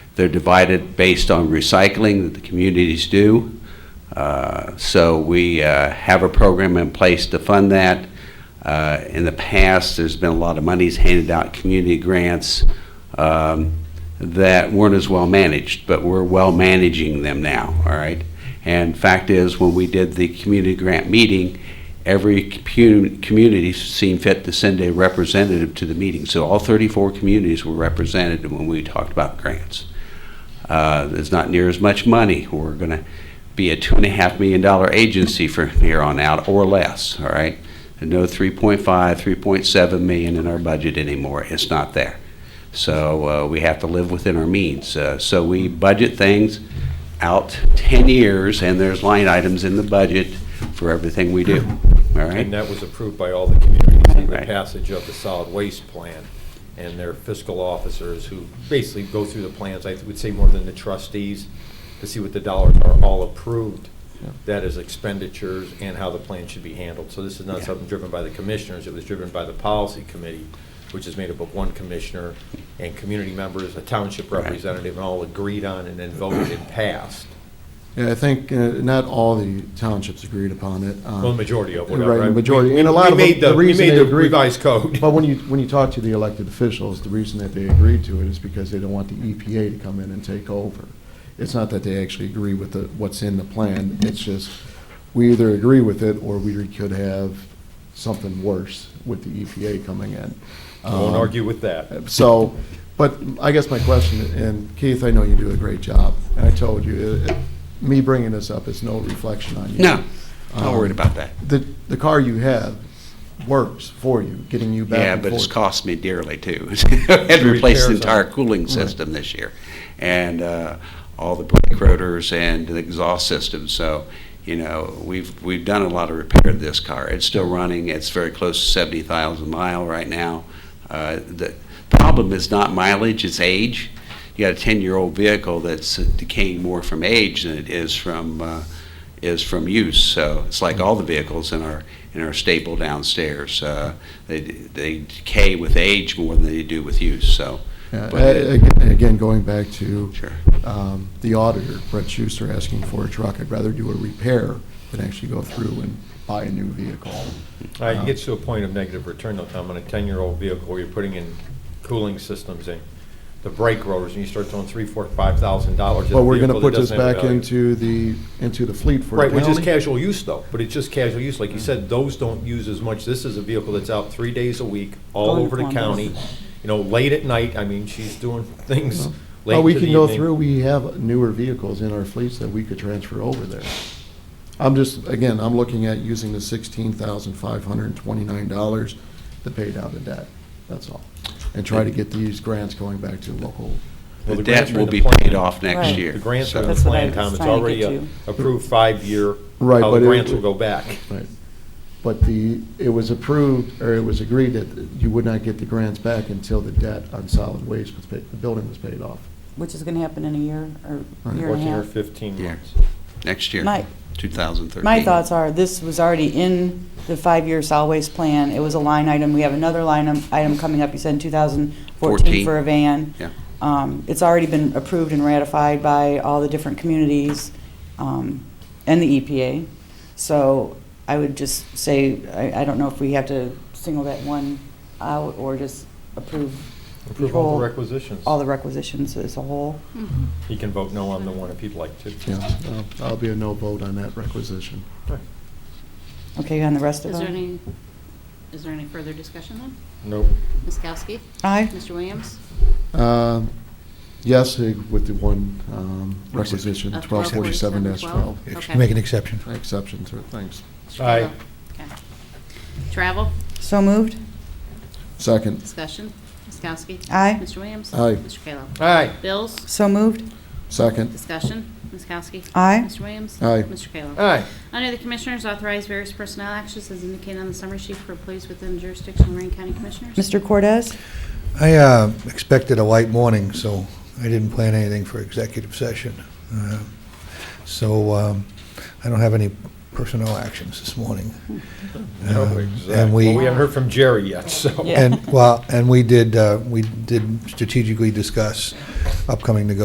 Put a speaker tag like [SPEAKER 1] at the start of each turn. [SPEAKER 1] They're divided based on recycling that the communities do. Uh, So we uh, have a program in place to fund that. Uh, In the past, there's been a lot of monies handed out, community grants, um, that weren't as well managed, but we're well managing them now, all right? And fact is, when we did the community grant meeting, every commu- community seemed fit to send a representative to the meeting. So all 34 communities were represented when we talked about grants. Uh, There's not near as much money. We're going to be a $2.5 million agency from here on out or less, all right? And No 3.5, 3.7 million in our budget anymore. It's not there. So uh, we have to live within our means. Uh, So we budget things out 10 years, and there's line items in the budget for everything we do, all
[SPEAKER 2] And uh,
[SPEAKER 1] right?
[SPEAKER 2] that was approved by all the communities in the
[SPEAKER 1] Right.
[SPEAKER 2] passage of the solid waste plan and their fiscal officers who basically go through the plans, I would say more than the trustees, to see what the dollars are all approved, that is expenditures and how the plan should be handled. So this is not
[SPEAKER 1] Yeah.
[SPEAKER 2] something driven by the commissioners, it was driven by the policy committee, which is made up of one commissioner and community members, a township
[SPEAKER 1] Right.
[SPEAKER 2] representative, and all agreed on and then voted and passed.
[SPEAKER 3] Yeah, I think uh, not all the townships agreed upon it. um,
[SPEAKER 2] Well, the majority of whatever.
[SPEAKER 3] Right, the
[SPEAKER 2] right?
[SPEAKER 3] majority,
[SPEAKER 2] We-
[SPEAKER 3] and a
[SPEAKER 2] we
[SPEAKER 3] lot of
[SPEAKER 2] made
[SPEAKER 3] the
[SPEAKER 2] We
[SPEAKER 3] reason
[SPEAKER 2] made
[SPEAKER 3] they
[SPEAKER 2] the
[SPEAKER 3] agreed.
[SPEAKER 2] revised code.
[SPEAKER 3] But when you, when you talk to the elected officials, the reason that they agreed to it is because they don't want the EPA to come in and take over. It's not that they actually agree with the, what's in the plan, it's just, we either agree with it, or we could have something worse with the EPA coming in.
[SPEAKER 2] I won't
[SPEAKER 3] Um,
[SPEAKER 2] argue with
[SPEAKER 1] uh,
[SPEAKER 2] that.
[SPEAKER 3] So, but I guess my question, and Keith, I know you do a great job, and I told you, it- it- me bringing this up is no reflection on you.
[SPEAKER 1] No, not worried about that.
[SPEAKER 3] The, the car you have works for you, getting you back
[SPEAKER 1] Yeah,
[SPEAKER 3] and
[SPEAKER 1] but it's
[SPEAKER 3] forth.
[SPEAKER 1] cost me dearly too. Had to replace the
[SPEAKER 2] Repairs on it.
[SPEAKER 1] entire cooling system this year and uh, all the brake rotors and the exhaust system. So, you know, we've, we've done a lot of repair to this car. It's still running. It's very close to 70,000 mile right now. Uh, The problem is not mileage, it's age. You got a 10-year-old vehicle that's decaying more from age than it is from, uh, is from use. So it's like all the vehicles in our, in our stable downstairs. Uh, They, they decay with age more than they do with use, so.
[SPEAKER 3] Yeah,
[SPEAKER 1] but
[SPEAKER 3] Uh, a- ag- Again, going back to
[SPEAKER 1] Sure.
[SPEAKER 3] um, the auditor, Brett Schuster, asking for a truck, I'd rather do a repair than actually go through and buy a new vehicle.
[SPEAKER 2] Uh,
[SPEAKER 3] Uh-huh.
[SPEAKER 2] It gets to a point of negative return though, Tom, on a ten-year-old vehicle where you're putting in cooling systems and the brake rotors, and you start throwing three, four, five thousand dollars. at a
[SPEAKER 3] But we're going to
[SPEAKER 2] vehicle that
[SPEAKER 3] put this
[SPEAKER 2] doesn't have a
[SPEAKER 3] back
[SPEAKER 2] value.
[SPEAKER 3] into the, into the fleet for the
[SPEAKER 2] Right, which is
[SPEAKER 3] county. Mm.
[SPEAKER 2] casual use though, but it's just casual use, like you said, those don't use as much, this is a vehicle that's out three days a week, all
[SPEAKER 4] Going
[SPEAKER 2] over the
[SPEAKER 4] on
[SPEAKER 2] county,
[SPEAKER 4] buses.
[SPEAKER 2] you know, late at night, I mean, she's doing things
[SPEAKER 3] Well,
[SPEAKER 2] late
[SPEAKER 3] Well, we
[SPEAKER 2] to the
[SPEAKER 3] can go
[SPEAKER 2] evening.
[SPEAKER 3] through, we have newer vehicles in our fleets that we could transfer over there. I'm just, again, I'm looking at using the sixteen thousand five hundred and twenty-nine dollars to pay down the debt, that's all. And try to get these grants going back to local,
[SPEAKER 1] The
[SPEAKER 2] Well, the
[SPEAKER 1] debt
[SPEAKER 2] grants are
[SPEAKER 1] will
[SPEAKER 2] in the
[SPEAKER 1] be paid
[SPEAKER 2] plan.
[SPEAKER 1] off next
[SPEAKER 4] Right.
[SPEAKER 1] year.
[SPEAKER 2] The grants
[SPEAKER 1] so-
[SPEAKER 2] are in the
[SPEAKER 4] That's what
[SPEAKER 2] plan,
[SPEAKER 4] I was
[SPEAKER 2] Tom, it's
[SPEAKER 4] trying to
[SPEAKER 2] already
[SPEAKER 4] get
[SPEAKER 2] a
[SPEAKER 4] to.
[SPEAKER 2] approved five-year,
[SPEAKER 3] Right,
[SPEAKER 2] how the
[SPEAKER 3] but it-
[SPEAKER 2] grants will go back.
[SPEAKER 3] right? But the, it was approved, or it was agreed that you would not get the grants back until the debt on solid waste was paid, the building was paid off.
[SPEAKER 4] Which is going to happen in a year or
[SPEAKER 3] Right.
[SPEAKER 4] year and a
[SPEAKER 2] Fourteen or
[SPEAKER 4] half.
[SPEAKER 2] fifteen
[SPEAKER 1] Yeah.
[SPEAKER 2] months.
[SPEAKER 1] Next year,
[SPEAKER 4] My-
[SPEAKER 1] 2013.
[SPEAKER 4] My thoughts are, this was already in the five-year solid waste plan. It was a line item. We have another line im- item coming up, you said in 2014
[SPEAKER 1] Fourteen.
[SPEAKER 4] for a van.
[SPEAKER 1] Yeah.
[SPEAKER 4] Um, It's already been approved and ratified by all the different communities um, and the EPA. So I would just say, I I don't know if we have to single that one out or just approve the
[SPEAKER 2] Approve all
[SPEAKER 4] whole,
[SPEAKER 2] the requisitions.
[SPEAKER 4] all the requisitions as a whole.
[SPEAKER 2] He can vote no on the one if he'd like to.
[SPEAKER 3] Yeah, I'll- I'll be a no vote on that requisition.
[SPEAKER 4] Okay, on the rest of
[SPEAKER 5] Is
[SPEAKER 4] them?
[SPEAKER 5] there any, is there any further discussion then?
[SPEAKER 2] Nope.
[SPEAKER 5] Ms. Kowski?
[SPEAKER 4] Aye.
[SPEAKER 5] Mr. Williams?
[SPEAKER 3] Um, Yes, eh, with the one um, requisition,
[SPEAKER 5] Of
[SPEAKER 3] twelve forty-seven twelve.
[SPEAKER 5] 1247-12?
[SPEAKER 6] Ex-
[SPEAKER 5] Okay.
[SPEAKER 6] Make an exception.
[SPEAKER 3] Exception to it, thanks.
[SPEAKER 2] Aye.
[SPEAKER 5] Okay. Travel,
[SPEAKER 4] So moved?
[SPEAKER 3] Second,
[SPEAKER 5] discussion, Ms. Kowski?
[SPEAKER 4] Aye.
[SPEAKER 5] Mr. Williams?
[SPEAKER 3] Aye.
[SPEAKER 5] Mr. Kayla?
[SPEAKER 2] Aye.
[SPEAKER 5] Bills,
[SPEAKER 4] So moved?
[SPEAKER 3] second,
[SPEAKER 5] discussion, Ms. Kowski?
[SPEAKER 4] Aye.
[SPEAKER 5] Mr. Williams?
[SPEAKER 3] Aye.
[SPEAKER 5] Mr. Kayla?
[SPEAKER 2] Aye.
[SPEAKER 5] Under the Commissioners, authorize various personnel actions as indicated on the summary sheet for employees within jurisdiction of Lorraine County Commissioners.
[SPEAKER 4] Mr. Cortez?
[SPEAKER 6] I uh, expected a light morning, so I didn't plan anything for executive session. Uh, So um, I don't have any personnel actions this morning.
[SPEAKER 2] No,
[SPEAKER 6] Um,
[SPEAKER 2] exactly.
[SPEAKER 6] And
[SPEAKER 2] Well, we
[SPEAKER 6] we,
[SPEAKER 2] haven't heard from Jerry yet, so.
[SPEAKER 4] Yeah.
[SPEAKER 6] and, well, and we did, uh, we did strategically discuss upcoming negotiations